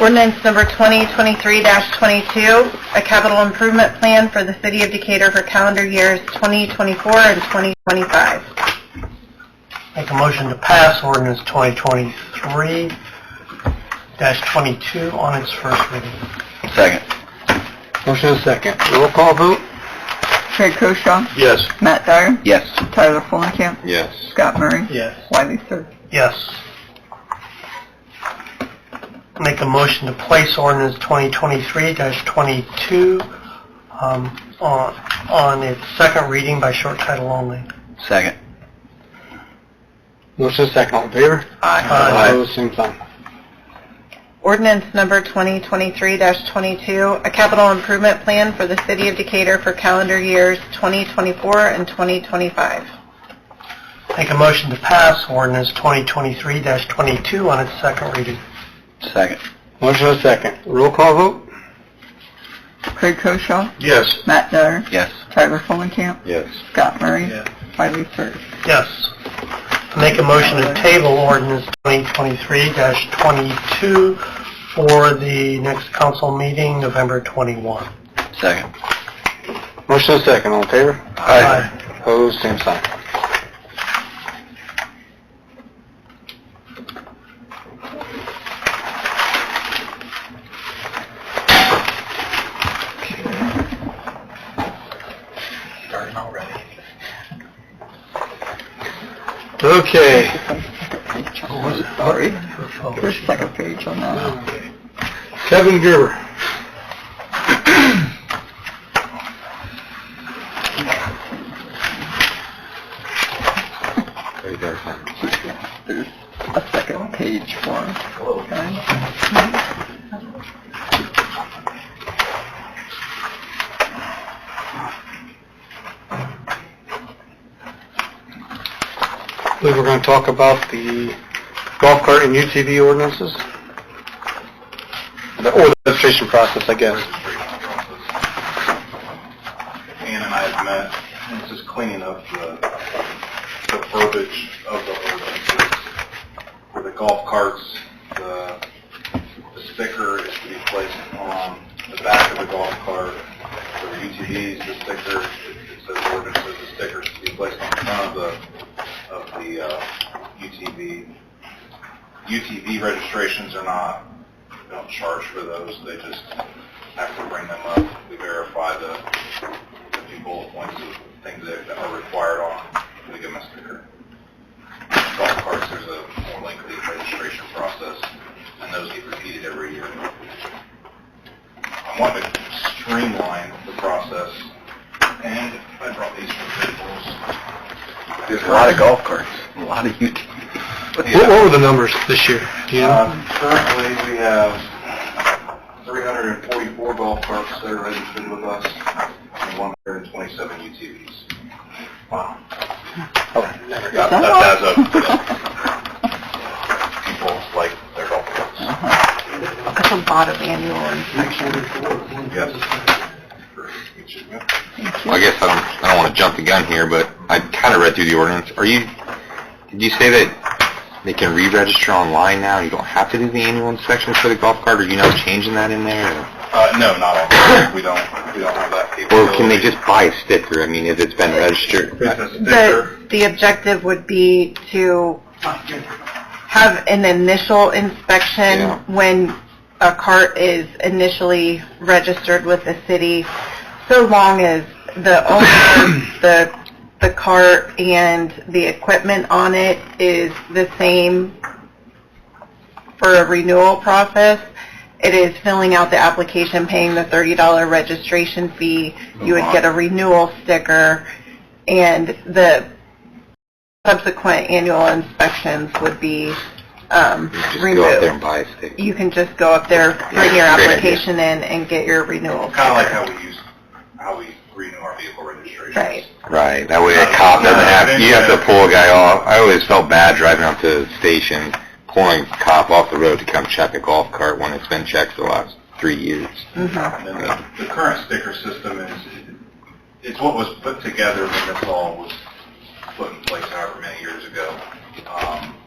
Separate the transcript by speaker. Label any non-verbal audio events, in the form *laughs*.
Speaker 1: Ordinance number 2023-22, a capital improvement plan for the city of Decatur for calendar years 2024 and 2025.
Speaker 2: Make a motion to pass ordinance 2023-22 on its first reading.
Speaker 3: Second.
Speaker 2: Motion and second. Roll call vote?
Speaker 4: Craig Koshaw,
Speaker 3: Yes.
Speaker 4: Matt Dyer,
Speaker 3: Yes.
Speaker 4: Tyler Fulenkamp,
Speaker 3: Yes.
Speaker 4: Scott Murray,
Speaker 2: Yes.
Speaker 4: Wiley Sir.
Speaker 2: Yes. Make a motion to place ordinance 2023-22 um, on on its second reading by short title only.
Speaker 3: Second.
Speaker 5: Motion second, all in favor?
Speaker 2: Aye.
Speaker 5: Opposed, same sign.
Speaker 1: Ordinance number 2023-22, a capital improvement plan for the city of Decatur for calendar years 2024 and 2025.
Speaker 2: Make a motion to pass ordinance 2023-22 on its second reading.
Speaker 3: Second.
Speaker 5: Motion second. Roll call vote?
Speaker 4: Craig Koshaw,
Speaker 3: Yes.
Speaker 4: Matt Dyer,
Speaker 3: Yes.
Speaker 4: Tyler Fulenkamp,
Speaker 3: Yes.
Speaker 4: Scott Murray,
Speaker 2: Yeah.
Speaker 4: Wiley Sir.
Speaker 2: Yes. Make a motion to table ordinance 2023-22 for the next council meeting, November 21.
Speaker 3: Second.
Speaker 5: Motion second, all in favor?
Speaker 2: Aye.
Speaker 5: Opposed, same sign.
Speaker 2: Starting already.
Speaker 5: Okay,
Speaker 4: Sorry, there's a second page on that.
Speaker 5: Kevin Gerber.
Speaker 4: There's a second page for it. Okay.
Speaker 5: I believe we're going to talk about the golf cart and UTV ordinances. The- Or the registration process, I guess.
Speaker 6: Ann and I have met, this is cleaning up the, the verbiage of the ordinances. For the golf carts, the, the sticker is to be placed on the back of the golf cart. For the UTVs, the sticker, it says ordinances, the sticker is to be placed on the front of the, of the, uh, UTV. UTV registrations are not, we don't charge for those, they just have to bring them up, we verify the, the few bullet points of things that that are required on the given sticker. Golf carts, there's a more lengthy registration process, and those get repeated every year. I want to streamline the process, and I brought these for visuals.
Speaker 3: There's a lot of golf carts, a lot of UTVs.
Speaker 5: *laughs* What what were the numbers this year? Do you know?
Speaker 6: Uh, Currently, we have 344 golf carts that are registered with us, and 127 UTVs. Wow. That- That adds up. yeah. People like their golf carts.
Speaker 1: That's a lot of annual inspections.
Speaker 6: Yes. For each of you.
Speaker 7: I guess I don't, I don't want to jump the gun here, but I kind of read through the ordinance. Are you, did you say that they can re-register online now? You don't have to do the annual inspections for the golf cart? Are you not changing that in there?
Speaker 6: Uh, no, not all. We don't, we don't have that
Speaker 7: Or
Speaker 6: capability.
Speaker 7: can they just buy a sticker? I mean, if it's been registered?
Speaker 6: It's a sticker.
Speaker 1: The, the objective would be to have an initial inspection
Speaker 7: Yeah.
Speaker 1: when a cart is initially registered with the city, so long as the owner, the, the cart and the equipment on it is the same for a renewal process. It is filling out the application, paying the $30 registration fee. You would get a renewal sticker, and the subsequent annual inspections would be um,
Speaker 7: Just go out there
Speaker 1: removed.
Speaker 7: and buy a sticker?
Speaker 1: You can just go up there, bring your
Speaker 7: Yeah, great idea.
Speaker 1: application in, and get your renewal.
Speaker 6: Kind of like how we use, how we renew our vehicle registrations.
Speaker 1: Right.
Speaker 7: Right, that way a cop doesn't have, you have to pull a guy off. I always felt bad driving up to the station, pulling a cop off the road to come check a golf cart when it's been checked for the last three years.
Speaker 1: Mm-hmm.
Speaker 6: And then the- the current sticker system is, it's what was put together when this all was put in place however many years ago. Um,